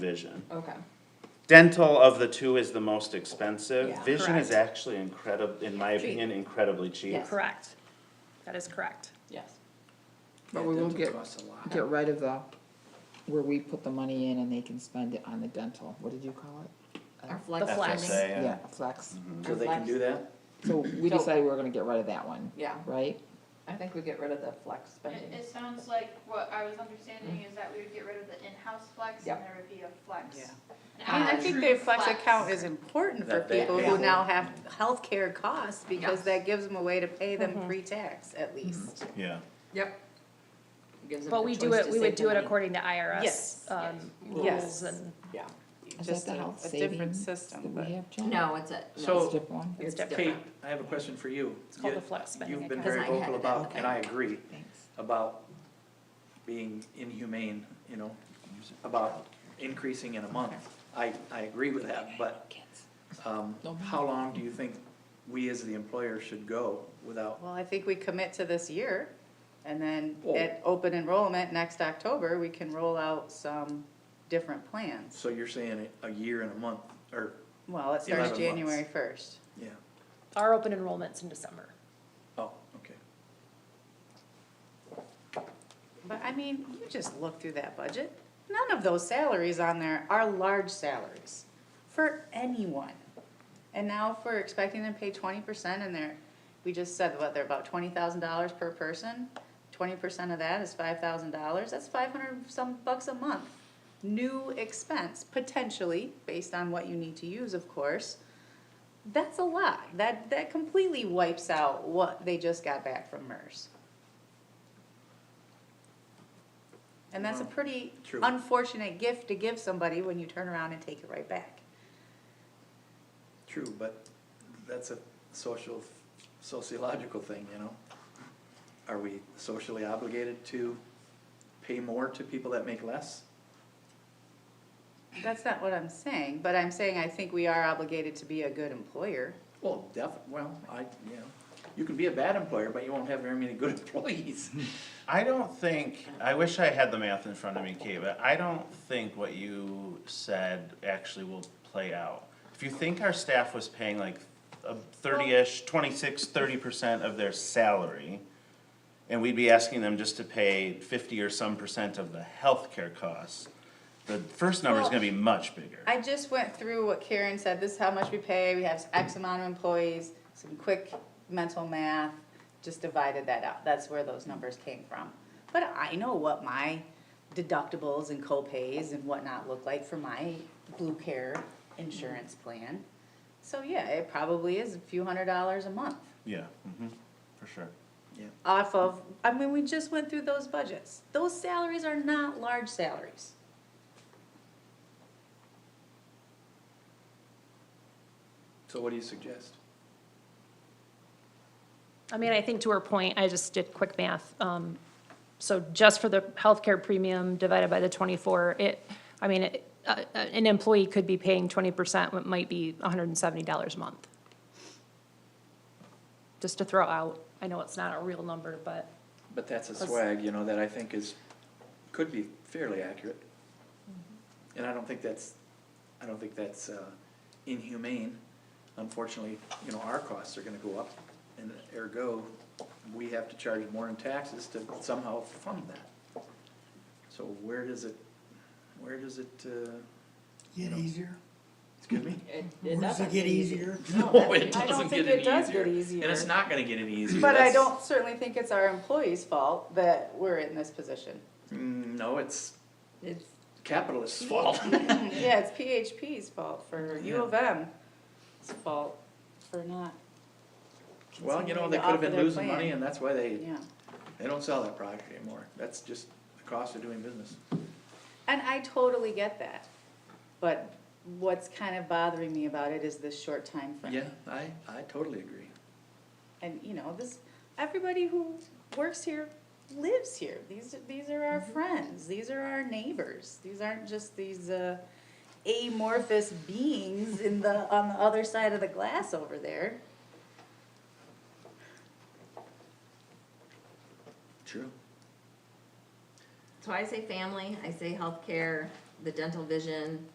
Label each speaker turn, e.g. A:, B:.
A: vision.
B: Okay,
A: Dental of the two is the most expensive.
B: Yeah.
A: Vision is
C: Correct.
A: actually incredible, in my
C: Cheap.
A: opinion, incredibly cheap.
B: Yes.
C: Correct. That is correct.
B: yes.
D: But we will
E: Dental
D: get,
E: costs a lot.
D: get rid of the, where we put the money in and they can spend it on the dental, what did you call it?
B: Our
C: The
B: flex
C: flex.
A: FSA,
B: funding,
D: Yeah,
A: yeah.
D: flex,
B: Mm-hmm.
E: So they can do that?
D: so we
B: So-
D: decided we were gonna get rid of that one,
B: yeah,
D: right?
B: I think we get rid of the flex
F: It,
B: spending.
F: it sounds like what I was understanding is that we would get rid of the in-house flex
B: Yep.
F: and there would be a flex.
E: Yeah.
F: an
G: I mean, I think the
F: actual
G: flex account is important for
E: That they
G: people
E: pay
G: who
E: for.
G: now have healthcare costs, because
B: Yes.
G: that gives them a way to pay
D: Mm-hmm.
G: them pre-tax at least.
A: Yeah.
B: Yep. Gives them
C: But
B: the
C: we
B: choice
C: do
B: to
C: it, we would
B: save the
C: do it
B: money.
C: according to IRS,
G: Yes.
C: um,
G: Yes.
C: rules and
B: Yeah,
D: Is
G: just
D: that the
G: a,
D: health
G: a different
D: savings that
G: system,
D: we
G: but.
D: have, Jen?
B: no, it's a,
D: It's
B: no,
E: So-
D: a different one,
C: it's
B: different.
E: Kate, I have a question for you.
C: It's called
E: You-
C: the flex spending
E: You've been
C: account.
E: very
B: Because I had
E: vocal
B: it
E: about,
B: up.
E: and I agree,
D: thanks.
E: about being inhumane, you know, about increasing in a month. I, I agree with that, but,
D: Kids.
E: um, how long do you think we as the employer should go without?
G: Well, I think we commit to this year, and then
E: Well-
G: at open enrollment next October, we can roll out some different plans.
E: So you're saying a a year and a month, or,
G: Well, it starts
E: 11 months.
G: January first.
E: yeah,
C: our open enrollment's in December.
E: oh, okay.
G: But I mean, you just look through that budget, none of those salaries on there are large salaries for anyone. And now if we're expecting them to pay twenty percent and they're, we just said what, they're about twenty thousand dollars per person. Twenty percent of that is five thousand dollars, that's five hundred some bucks a month. New expense, potentially, based on what you need to use, of course. That's a lot, that, that completely wipes out what they just got back from MERS. And that's a
E: Well,
G: pretty
E: true.
G: unfortunate gift to give somebody when you turn around and take it right back.
E: True, but that's a social, sociological thing, you know? Are we socially obligated to pay more to people that make less?
G: That's not what I'm saying, but I'm saying I think we are obligated to be a good employer.
E: Well, def, well, I, you know, you can be a bad employer, but you won't have very many good employees.
A: I don't think, I wish I had the math in front of me, Kate, but I don't think what you said actually will play out. If you think our staff was paying like a thirty-ish, twenty-six, thirty percent of their salary, and we'd be asking them just to pay fifty or some percent of the healthcare costs, the first number's gonna be much bigger.
G: I just went through what Karen said, this is how much we pay, we have X amount of employees, some quick mental math, just divided that out, that's where those numbers came from. But I know what my deductibles and co-pays and whatnot look like for my Blue Care insurance plan. So yeah, it probably is a few hundred dollars a month
A: Yeah, hmm for sure.
G: off of, I mean, we just went through those budgets. Those salaries are not large salaries.
E: So what do you suggest?
C: I mean, I think to her point, I just did quick math. Um, so just for the healthcare premium divided by the twenty-four, it, I mean, it, uh, uh, an employee could be paying twenty percent, what might be hundred and seventy dollars a month. Just to throw out, I know it's not a real number, but
E: But that's a
C: Let's-
E: swag, you know, that I think is, could be fairly accurate.
G: Mm-hmm.
E: And I don't think that's, I don't think that's uh, inhumane. Unfortunately, you know, our costs are gonna go up, and ergo, we have to charge more in taxes to somehow fund that. So where does it, where does it, uh,
H: Get easier?
E: excuse me?
B: it, it
H: Does it
B: doesn't.
H: get easier?
E: No, it
G: I don't
E: doesn't
G: think
E: get any
G: it does get
E: easier. And it's
G: easier.
E: not gonna get any easier.
G: But I
E: That's-
G: don't certainly think it's our employees' fault that we're in this position.
E: Mm, No, it's
B: It's,
E: capitalist's fault.
G: Yeah, it's PHP's fault for U of M's fault for not.
E: Well, you know,
G: continuing
E: they
G: to
E: could have
G: offer
E: been
G: their
E: losing
G: plan.
E: money and that's why they,
G: Yeah,
E: they don't sell that product anymore. That's just the cost of doing business.
G: and I totally get that, but what's kind of bothering me about it is this short time frame.
E: Yeah, I, I totally agree.
G: And, you know, this, everybody who works here lives here. These, these are our friends, these are our neighbors. These aren't just these, uh, amorphous beings in the, on the other side of the glass over there.
E: True.
B: so I say family, I say healthcare, the dental vision,